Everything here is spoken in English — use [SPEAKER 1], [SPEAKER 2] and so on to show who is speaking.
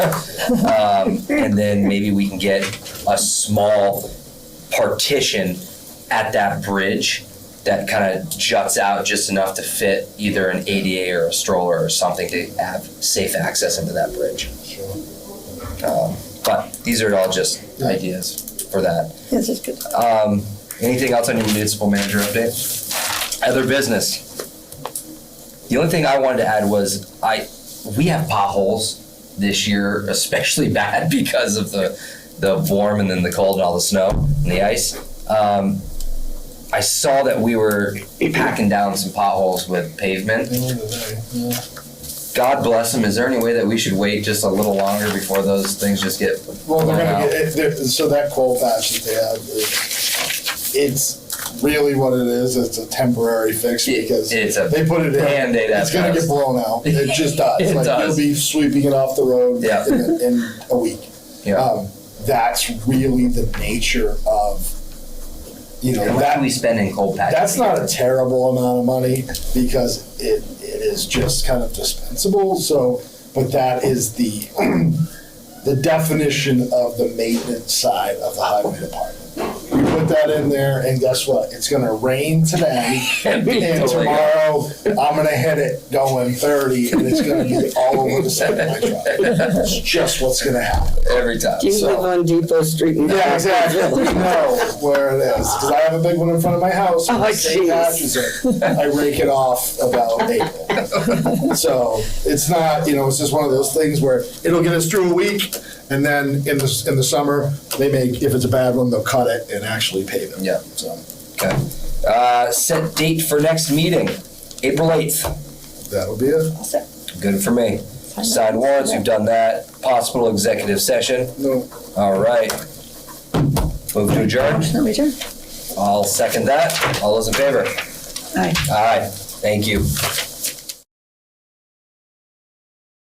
[SPEAKER 1] Um, and then maybe we can get a small partition at that bridge that kind of juts out just enough to fit either an ADA or a stroller or something to have safe access into that bridge. Um, but these are all just ideas for that.
[SPEAKER 2] This is good.
[SPEAKER 1] Um, anything else on your municipal manager update? Other business? The only thing I wanted to add was I, we have potholes this year especially bad because of the, the warm and then the cold and all the snow and the ice. Um, I saw that we were packing down some potholes with pavement. God bless them. Is there any way that we should wait just a little longer before those things just get?
[SPEAKER 3] Well,
[SPEAKER 1] Wow.
[SPEAKER 3] they're gonna get, it- they're- so that coal patch that they have, it- it's really what it is, it's a temporary fix because
[SPEAKER 1] It's a
[SPEAKER 3] they put it in,
[SPEAKER 1] band-aid. at
[SPEAKER 3] it's gonna
[SPEAKER 1] best.
[SPEAKER 3] get blown out, it just does,
[SPEAKER 1] It
[SPEAKER 3] like
[SPEAKER 1] does.
[SPEAKER 3] you'll be sweeping it off the road
[SPEAKER 1] Yeah.
[SPEAKER 3] in, in a week.
[SPEAKER 1] Yeah.
[SPEAKER 3] Um, That's really the nature of, you know,
[SPEAKER 1] How much
[SPEAKER 3] that,
[SPEAKER 1] do we spend in cold patches?
[SPEAKER 3] That's not a terrible amount of money because it, it is just kind of dispensable. So, but that is the the definition of the maintenance side of the highway department. We put that in there, and guess what? It's going to rain today,
[SPEAKER 1] And be
[SPEAKER 3] and
[SPEAKER 1] totally-
[SPEAKER 3] tomorrow I'm going to hit it going 30, and it's going to be all over the side of my truck. It's just what's going to happen.
[SPEAKER 1] Every time.
[SPEAKER 2] Do you
[SPEAKER 3] So-
[SPEAKER 2] live on Depot Street? in
[SPEAKER 3] Yeah, exactly. We know where it is because I have a big one in front of my house. and
[SPEAKER 2] Oh,
[SPEAKER 3] the same
[SPEAKER 2] jeez.
[SPEAKER 3] patch is in. I rake it off about April. so it's not, you know, it's just one of those things where it'll get us through a week, and then in the in the summer they make if it's a bad one they'll cut it and actually pave it.
[SPEAKER 1] Yeah.
[SPEAKER 3] So
[SPEAKER 1] Okay. Uh, set date for next meeting, April 8th.
[SPEAKER 3] that'll be it.
[SPEAKER 1] Good for me. Signed warrants, we've done that. Possible executive session.
[SPEAKER 3] No.
[SPEAKER 1] All right. Move to adjourn.
[SPEAKER 2] Let me turn.
[SPEAKER 1] I'll second that. All those in favor?
[SPEAKER 2] Aye.
[SPEAKER 1] All right. Thank you.